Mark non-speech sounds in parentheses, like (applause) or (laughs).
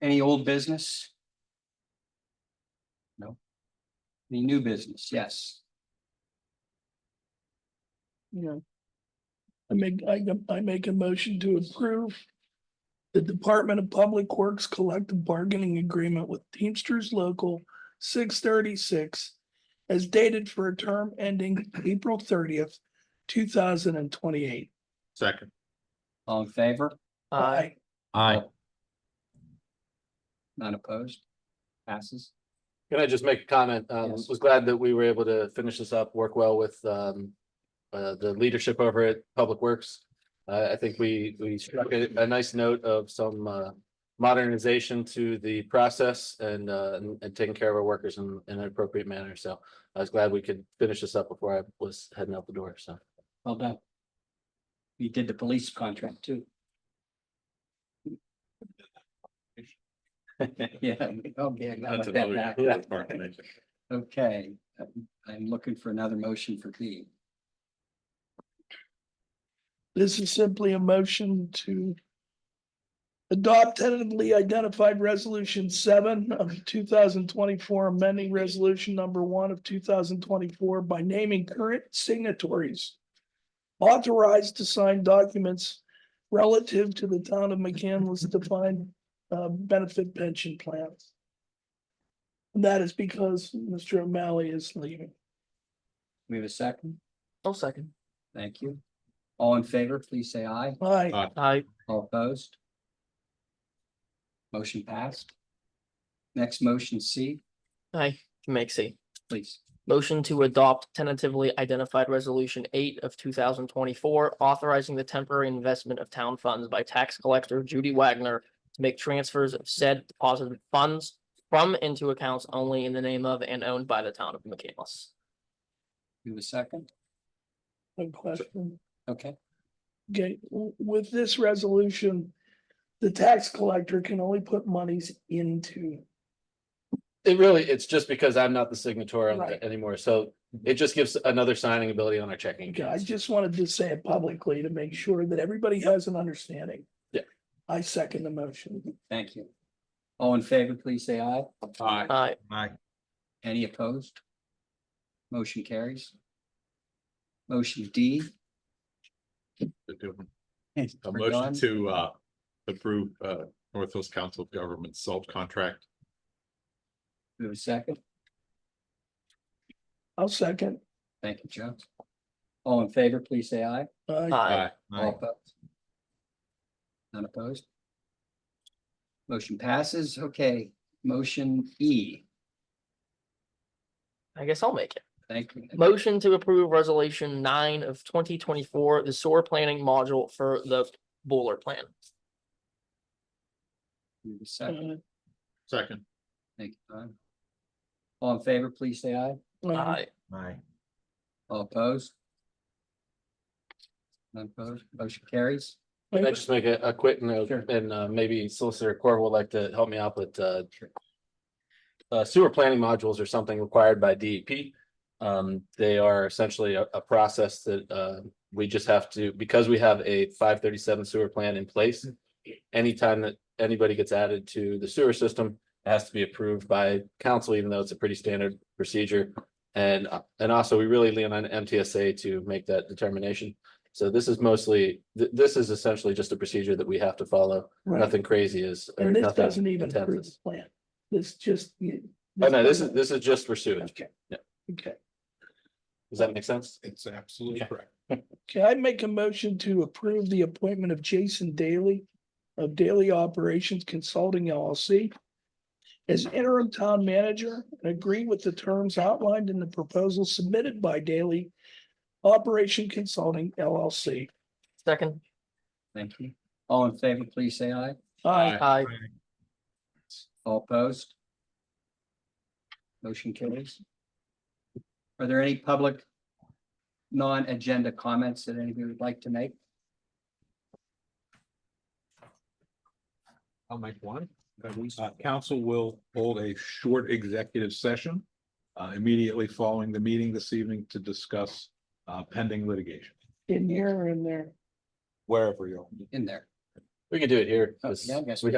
Any old business? No. Any new business? Yes. Yeah. I make, I, I make a motion to approve. The Department of Public Works Collective Bargaining Agreement with Teamsters Local six thirty-six. As dated for a term ending April thirtieth, two thousand and twenty-eight. Second. All in favor? Aye. Aye. None opposed? Passes. Can I just make a comment? Um, Yes. was glad that we were able to finish this up, work well with, um, uh, the leadership over at Public Works. Uh, I think we, we struck a, a nice note of some, uh, modernization to the process and, uh, and- and taking care of our workers in, in an appropriate manner. So I was glad we could finish this up before I was heading out the door. So. Well done. You did the police contract too. (laughs) Yeah. Okay. now That's let that another back. department. Okay, I'm- I'm looking for another motion for B. This is simply a motion to. Adopt tentatively identified resolution seven of two thousand twenty-four, amending resolution number one of two thousand twenty-four by naming current signatories. Authorized to sign documents relative to the town of McCandless defined uh, benefit pension plans. And that is because Mr. O'Malley is leaving. We have a second? I'll second. Thank you. All in favor, please say aye. Aye. Aye. Aye. All opposed? Motion passed. Next motion C, Aye. Makes a please. motion to adopt tentatively identified resolution eight of two thousand twenty-four, authorizing the temporary investment of town funds by tax collector Judy Wagner to make transfers of said deposited funds from into accounts only in the name of and owned by the town of McCandless. We have a second? No question. Okay, Okay, w- with this resolution, the tax collector can only put monies into, It really, it's just because I'm not the signatory on Right. it anymore. So it just gives another signing ability on our checking. Okay, I accounts. just wanted to say it publicly to make sure that everybody has an understanding. Yeah. I second the motion. thank you. All in favor, please say aye. Aye. Aye. Aye. Any opposed? Motion carries. Motion D. A for motion Dawn. to uh approve uh North Hills Council of Governments salt contract. We have a second? I'll second. Thank you, Joe. All in favor, please say aye. Uh, Aye. All opposed? None opposed? Motion passes. Okay, motion E. I guess I'll make it. Thank you. Motion to approve resolution nine of twenty twenty-four, the sewer planning module for the boiler plan. We have a uh, Second, Second. thank you, Don. All in favor, please say aye. uh, Aye. Aye. All opposed? None opposed, motion carries. Can I just make a, a quick note Sure. and uh, maybe Solicitor Core will like to help me out with uh. Sure. Uh, sewer planning modules are something required by DEP. Um, they are essentially a, a process that uh, we just have to, because we have a five thirty-seven sewer plan in place. Mm-hmm. Anytime that anybody gets added to the sewer system, it has to be approved by council, even though it's a pretty standard procedure. And uh, and also, we really lean on MTSA to make that determination. So this is mostly, th- this is essentially just a procedure that we have to follow. right. Nothing crazy is. or And this nothing doesn't even intense approve the is- plan. This just. you- Oh, no, this is, this is just for sewage. Okay. Yeah. Okay. Does that make sense? It's absolutely Yeah. correct. Can I make a motion to approve the appointment of Jason Daly of Daily Operations Consulting LLC as interim town manager and agree with the terms outlined in the proposal submitted by Daily Operation Consulting LLC? Second. Thank you. All in favor, please say aye. Aye. Aye. All opposed? Motion carries. Are there any public non-agenda comments that anybody would like to make? I'll make one. Uh, Council will hold a short executive session uh, immediately following the meeting this evening to discuss uh, pending litigation, In here or in there? wherever you're. In there. We could do it here. Oh, This- yeah, I guess we we